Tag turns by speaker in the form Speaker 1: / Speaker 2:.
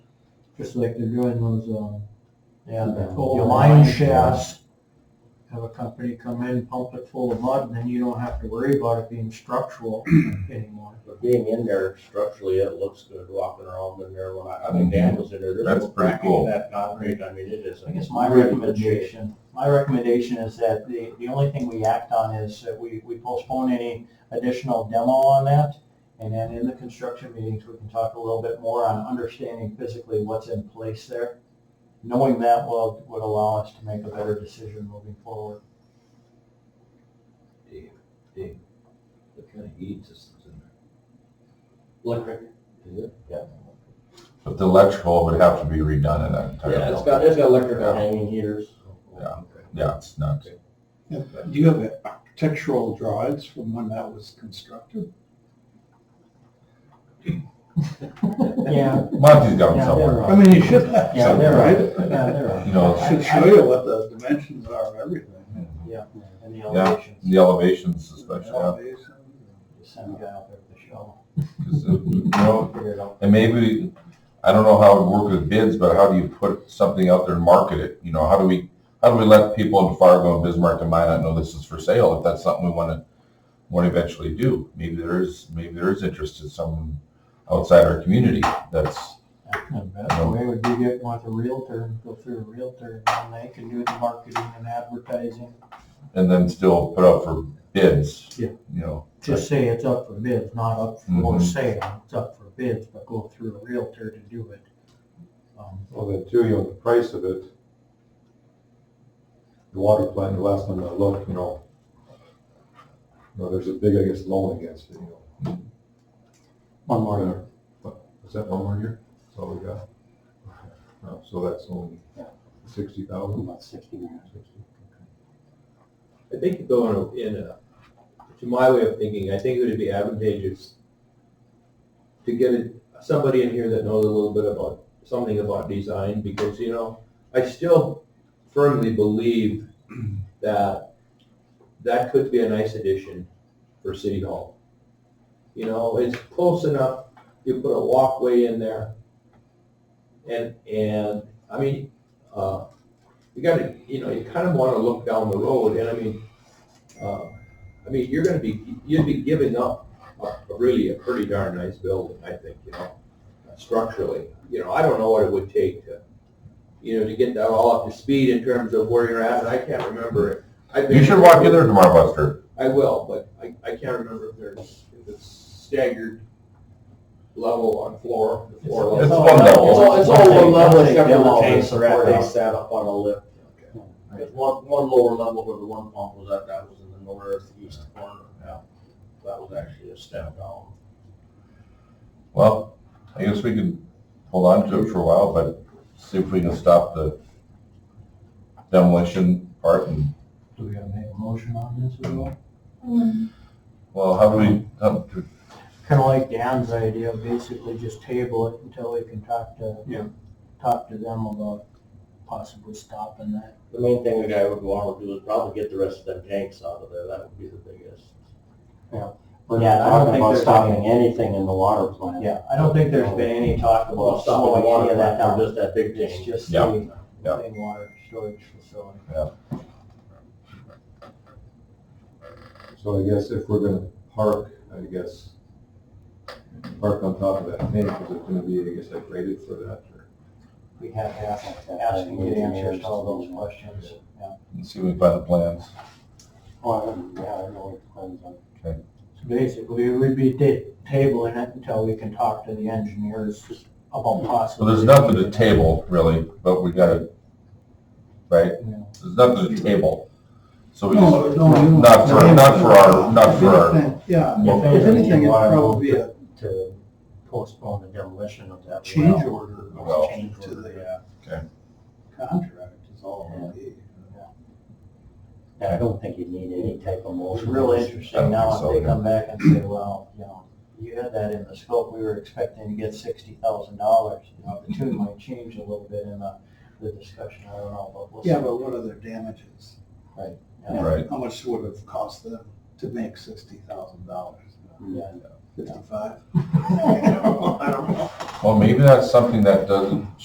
Speaker 1: just like they're doing those, um, and
Speaker 2: Yeah.
Speaker 1: the line shafts. Have a company come in, pump it full of mud, and then you don't have to worry about it being structural anymore.
Speaker 2: But being in there structurally, it looks good walking around in there. When I, I mean, Dan was in there. there's
Speaker 3: That's
Speaker 2: no
Speaker 3: pretty
Speaker 2: creaking
Speaker 3: cool.
Speaker 2: That concrete, I mean, it is.
Speaker 1: I guess my recommendation, my recommendation is that the, the only thing we act on is that we, we postpone any additional demo on that. And then in the construction meetings, we can talk a little bit more on understanding physically what's in place there. Knowing that will, would allow us to make a better decision moving forward.
Speaker 4: Dave, Dave, what kind of heating systems in there?
Speaker 2: Electric.
Speaker 4: Is it?
Speaker 2: Yeah.
Speaker 3: But the electrical would have to be redone in that entire
Speaker 2: Yeah, it's
Speaker 3: building.
Speaker 2: got, it's got electric hanging heaters.
Speaker 4: Oh,
Speaker 3: Yeah. Yeah, it's nuts.
Speaker 5: Do you have architectural drawings from when that was constructed?
Speaker 1: Yeah,
Speaker 3: Monty's got
Speaker 1: Yeah,
Speaker 3: them somewhere.
Speaker 5: I mean, you should have,
Speaker 1: yeah,
Speaker 5: some,
Speaker 1: there
Speaker 5: right?
Speaker 1: are, yeah, there are.
Speaker 3: You know,
Speaker 5: It Should show you what the dimensions are of everything.
Speaker 1: And the
Speaker 3: Yeah.
Speaker 1: elevations,
Speaker 3: the elevations especially, yeah.
Speaker 5: Elevations.
Speaker 1: just send a guy out there with a shovel,
Speaker 3: 'Cause, uh, you know,
Speaker 1: figure it out.
Speaker 3: and maybe, I don't know how it would work with bids, but how do you put something out there and market it? You know, how do we, how do we let people in Fargo and Bismarck and Minot know this is for sale if that's something we want to, want to eventually do? Maybe there is, maybe there is interest in some outside our community that's,
Speaker 1: The best way would be get with a realtor, and go through a realtor, and they can do the marketing and advertising.
Speaker 3: and then still put out for bids.
Speaker 1: Yeah.
Speaker 3: You know,
Speaker 1: Just say it's up for bids, not up for
Speaker 2: Mm-hmm.
Speaker 3: Mhm.
Speaker 1: sale, it's up for bids, but go through a realtor to do it. Um,
Speaker 2: Well, then too, you know, the price of it, the water plant, the last one I looked, you know, you know, there's a big, I guess, loan against it, you know.
Speaker 1: One more year.
Speaker 2: Is that one more year? That's all we got? No, So that's only sixty thousand?
Speaker 1: About sixty grand.
Speaker 4: I think going in a, to my way of thinking, I think it would be advantageous to get it- somebody in here that knows a little bit about, something about design, because, you know, I still firmly believe that that could be a nice addition for City Hall. You know, it's close enough, you put a walkway in there, and, and, I mean, uh, you gotta, you know, you kind of want to look down the road, and I mean, uh, I mean, you're gonna be, you'd be giving up a, a really a pretty darn nice building, I think, you know, structurally. You know, I don't know what it would take to, you know, to get that all up to speed in terms of where you're at, and I can't remember it. I've been-
Speaker 3: you should walk in there tomorrow, Buster.
Speaker 4: I will, but I, I can't remember if there's, if it's staggered level on floor, the floor level.
Speaker 3: It's one level.
Speaker 2: Oh, It's all, it's all one level except for
Speaker 1: Demo
Speaker 2: the
Speaker 1: and
Speaker 2: tanks are at,
Speaker 1: support
Speaker 2: they
Speaker 1: up.
Speaker 2: sat up on a lift. There's one, one lower level where the one pump was at, that was in the northeast corner. Yeah. That was actually a step down.
Speaker 3: Well, I guess we could hold on to it for a while, but see if we can stop the demolition part and,
Speaker 1: Do we gotta make a motion on this at all?
Speaker 3: well, how do we, how-
Speaker 1: Kinda like Dan's idea, basically just table it until we can talk to,
Speaker 5: Yeah.
Speaker 1: talk to them about possibly stopping that.
Speaker 2: The main thing the guy would want to do is probably get the rest of them tanks out of there, that would be the biggest.
Speaker 1: We're not talking about stopping
Speaker 2: anything in the water plant.
Speaker 1: Yeah, I don't think there's been any talk
Speaker 2: Well,
Speaker 1: about
Speaker 2: stopping the
Speaker 1: slowing any
Speaker 2: water
Speaker 1: of that
Speaker 2: plant,
Speaker 1: down.
Speaker 2: or just that big
Speaker 1: It's
Speaker 2: tank.
Speaker 1: just
Speaker 3: Yeah.
Speaker 1: the
Speaker 3: Yeah.
Speaker 1: main water storage facility.
Speaker 2: So I guess if we're gonna park, I guess, park on top of that tank, is it gonna be, I guess, like rated for that?
Speaker 1: We have to ask, ask and get answers to all those questions, yeah.
Speaker 3: see if we can find the plans?
Speaker 1: Well, yeah, Oh, I know what plans on.
Speaker 3: Okay.
Speaker 1: So basically, we'd be ta- tabling it until we can talk to the engineers about
Speaker 3: So
Speaker 1: possibly.
Speaker 3: there's nothing to table really, but we gotta, right?
Speaker 1: Yeah.
Speaker 3: There's nothing to table. So we just,
Speaker 5: No, no, you-
Speaker 3: not for, not for our, not for our,
Speaker 5: Yeah,
Speaker 1: If
Speaker 5: if anything, it's probably a
Speaker 1: To postpone the demolition of that.
Speaker 5: change
Speaker 1: well.
Speaker 5: order,
Speaker 3: Well.
Speaker 5: change to the
Speaker 1: yeah.
Speaker 5: contract is all it'll be.
Speaker 1: Yeah, I don't think you need any type of motion. It's real
Speaker 3: I
Speaker 1: interesting
Speaker 3: don't
Speaker 1: now
Speaker 3: think so,
Speaker 1: if they
Speaker 3: yeah.
Speaker 1: come back and say, well, you know, you had that in the scope, we were expecting to get sixty thousand dollars. You know, the tune might change a little bit in the, the discussion, I don't know, but we'll see.
Speaker 5: Yeah, but what are their damages?
Speaker 1: Yeah.
Speaker 3: Right.
Speaker 5: How much would it have cost them to make sixty thousand dollars?
Speaker 1: Yeah.
Speaker 5: Fifty-five? I don't know.
Speaker 3: well, maybe that's something that doesn't